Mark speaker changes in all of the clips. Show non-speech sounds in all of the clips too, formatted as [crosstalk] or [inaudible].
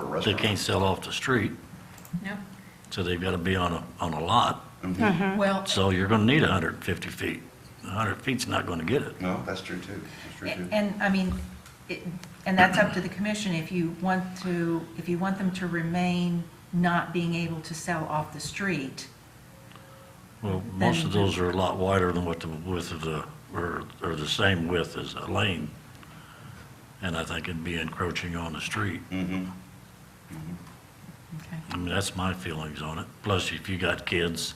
Speaker 1: That's
Speaker 2: They
Speaker 1: right.
Speaker 2: can't sell off the street,
Speaker 3: No.
Speaker 2: so they've got to be on a, on a lot.
Speaker 3: Well,
Speaker 2: So you're going to need 150 feet. 100 feet's not going to get it.
Speaker 1: No, that's true too. That's true too.
Speaker 3: and, I mean, it- and that's up to the commission, if you want to, if you want them to remain not being able to sell off the street,
Speaker 2: Well, most of
Speaker 3: Then-
Speaker 2: those are a lot wider than what the width of the, or, or the same width as a lane. And I think it'd be encroaching on the street.
Speaker 1: Mm-hmm.
Speaker 3: okay?
Speaker 2: I mean, that's my feelings on it. Plus, if you got kids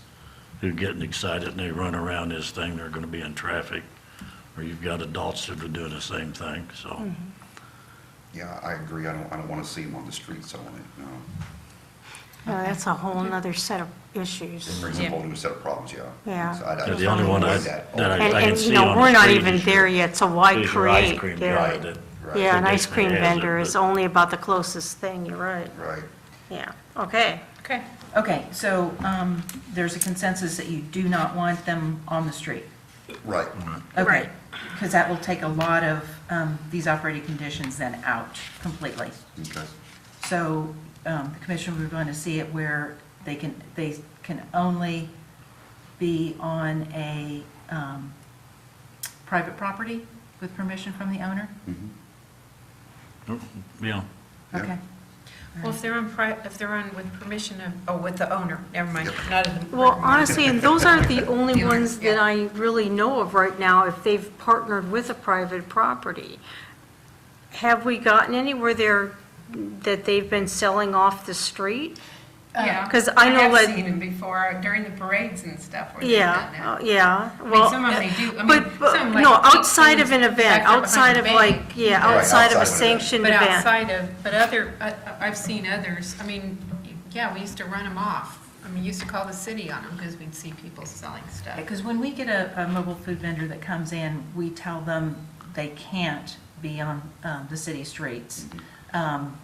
Speaker 2: who are getting excited and they run around this thing, they're gonna be in traffic. Or you've got adults that are doing the same thing, so.
Speaker 1: Yeah, I agree. I don't, I don't want to see them on the street selling it, no.
Speaker 4: Yeah, that's a whole nother set of issues.
Speaker 1: It brings up a
Speaker 3: Yeah.
Speaker 1: whole new set of problems, yeah.
Speaker 4: Yeah.
Speaker 1: So I- I
Speaker 2: They're
Speaker 1: just
Speaker 2: the only one I,
Speaker 1: avoid
Speaker 2: that
Speaker 1: that.
Speaker 2: I I
Speaker 4: And,
Speaker 2: can
Speaker 4: and, you
Speaker 2: see on
Speaker 4: know,
Speaker 2: the
Speaker 4: we're not
Speaker 2: street
Speaker 4: even
Speaker 2: is your-
Speaker 4: there yet, so why
Speaker 2: is your ice
Speaker 4: create?
Speaker 2: cream
Speaker 4: there?
Speaker 2: guy that-
Speaker 1: Right.
Speaker 4: Yeah, an
Speaker 2: that
Speaker 4: ice
Speaker 2: basically
Speaker 4: cream
Speaker 2: has it,
Speaker 4: vendor is
Speaker 2: but-
Speaker 4: only about the closest thing, you're right.
Speaker 1: Right.
Speaker 4: Yeah, okay.
Speaker 3: Okay. Okay, so um, there's a consensus that you do not want them on the street?
Speaker 1: Right.
Speaker 3: Okay,
Speaker 2: Mm-hmm.
Speaker 4: Right.
Speaker 3: because that will take a lot of um, these operating conditions then out completely.
Speaker 1: Okay.
Speaker 3: So um, the commission, we're going to see it where they can, they can only be on a um, private property with permission from the owner?
Speaker 1: Mhm.
Speaker 2: Oh, Yeah,
Speaker 1: Yeah.
Speaker 3: Okay.
Speaker 5: Well, if they're on, pri- if they're on with permission of, oh, with the owner, never mind, not in the.
Speaker 4: Well, honestly, and those are the only
Speaker 5: Yeah.
Speaker 4: ones that I really know of right now, if they've partnered with a private property. Have we gotten anywhere there that they've been selling off the street?
Speaker 5: Yeah,
Speaker 4: 'Cause I know
Speaker 5: I
Speaker 4: that-
Speaker 5: have seen them before during the parades and stuff where they've done
Speaker 4: Yeah,
Speaker 5: that.
Speaker 4: uh, yeah,
Speaker 5: mean,
Speaker 4: well.
Speaker 5: some of them they do- I mean,
Speaker 4: but- but,
Speaker 5: some, like,
Speaker 4: No,
Speaker 5: big
Speaker 4: outside of an
Speaker 5: things
Speaker 4: event,
Speaker 5: back there behind
Speaker 4: outside
Speaker 5: the
Speaker 4: of
Speaker 5: bank.
Speaker 4: like, yeah,
Speaker 1: Right,
Speaker 4: outside of a
Speaker 1: outside of an event.
Speaker 4: sanctioned
Speaker 5: But
Speaker 4: event.
Speaker 5: outside of, but other, I- I- I've seen others, I mean, yeah, we used to run them off. I mean, used to call the city on them because we'd see people selling stuff.
Speaker 3: Because when we get a, a mobile food vendor that comes in, we tell them they can't be on um, the city streets. Um,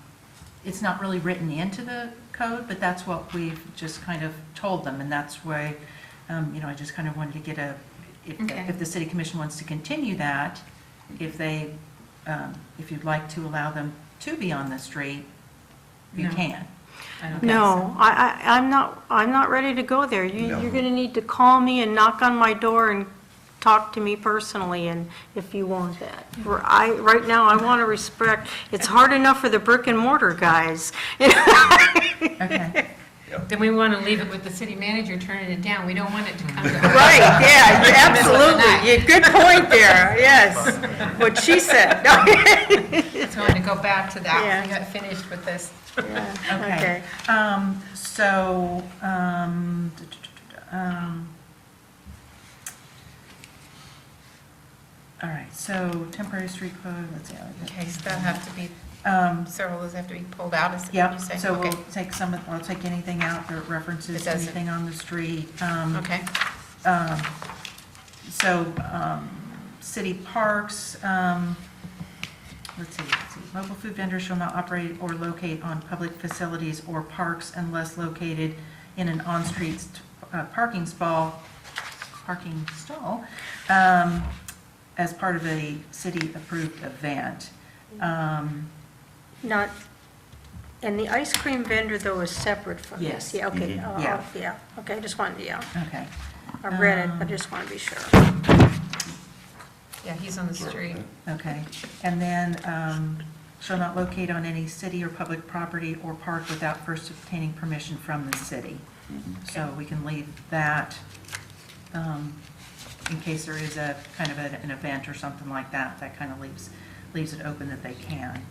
Speaker 3: It's not really written into the code, but that's what we've just kind of told them, and that's why, um, you know, I just kind of wanted to get a, if,
Speaker 5: Okay.
Speaker 3: if the city commission wants to continue that, if they, um, if you'd like to allow them to be on the street, you
Speaker 5: No.
Speaker 3: can.
Speaker 5: I don't think so.
Speaker 4: No, I, I, I'm not, I'm not ready to go there. You,
Speaker 1: No.
Speaker 4: you're gonna need to call me and knock on my door and talk to me personally and if you want that. We're- I, right now, I wanna respect, it's hard enough for the brick and mortar guys. [laughs]
Speaker 3: Okay.
Speaker 5: Then we want to leave it with the city manager turning it down. We don't want it to come to us. [laughs]
Speaker 4: Right, yeah,
Speaker 5: you're absolutely-
Speaker 4: yeah, good point there, yes,
Speaker 1: [laughs]
Speaker 4: what she said. [laughs]
Speaker 5: It's going to go back to that. We
Speaker 4: Yeah.
Speaker 5: got finished with this.
Speaker 3: Okay. Um, so, um, duh, duh, duh, duh, duh, um, all right, so temporary street code, let's see.
Speaker 5: Okay, so they'll have to be,
Speaker 3: Um,
Speaker 5: several of those have to be pulled out, is what
Speaker 3: yeah,
Speaker 5: you're saying?
Speaker 3: so we'll
Speaker 5: Okay.
Speaker 3: take some, of- we'll take anything out that
Speaker 5: That
Speaker 3: references
Speaker 5: doesn't-
Speaker 3: anything on the street. Um,
Speaker 5: Okay,
Speaker 3: um, So, um, city parks, um, let's see, let's see. Mobile food vendors shall not operate or locate on public facilities or parks unless located in an on-street st- uh, parking stall, parking stall, um, as part of a city-approved event. Um,
Speaker 4: Not, and the ice cream vendor though is separate from
Speaker 3: Yes. Mm-hmm.
Speaker 4: this? Yeah, okay,
Speaker 1: Mhm.
Speaker 4: uh,
Speaker 3: Yeah.
Speaker 4: yeah, okay, I just wanted, yeah,
Speaker 3: Okay.
Speaker 4: I read it, but
Speaker 3: Um,
Speaker 4: just want to be sure.
Speaker 5: yeah, he's on the street.
Speaker 3: Okay, and then, um, shall not locate on any city or public property or park without first obtaining permission from the city. So we can leave that, um, in case there is a, kind of an an event or something like that, that kind of leaves, leaves it open that they can.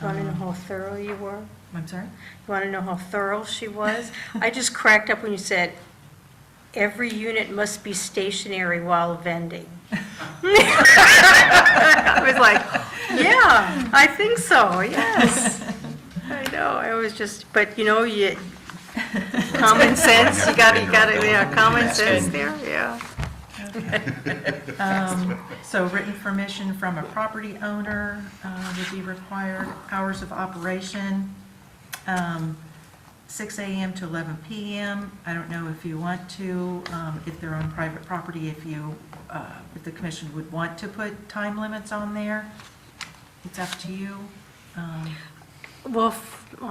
Speaker 4: Want to know
Speaker 3: Um,
Speaker 4: how thorough you were?
Speaker 3: I'm sorry?
Speaker 4: You want to know how thorough she was? I just cracked up when you said, every unit must be stationary while vending. I was like, yeah, I think so, yes. I know, I was just, but you know, you, common sense, you gotta, you gotta, yeah, common sense there, yeah.
Speaker 3: Um, So written permission from a property owner uh, would be required, hours of operation, um, 6 AM to 11 PM. I don't know if you want to, um, if they're on private property, if you, uh, if the commission would want to put time limits on there. It's up to you. Um,
Speaker 4: Well, f-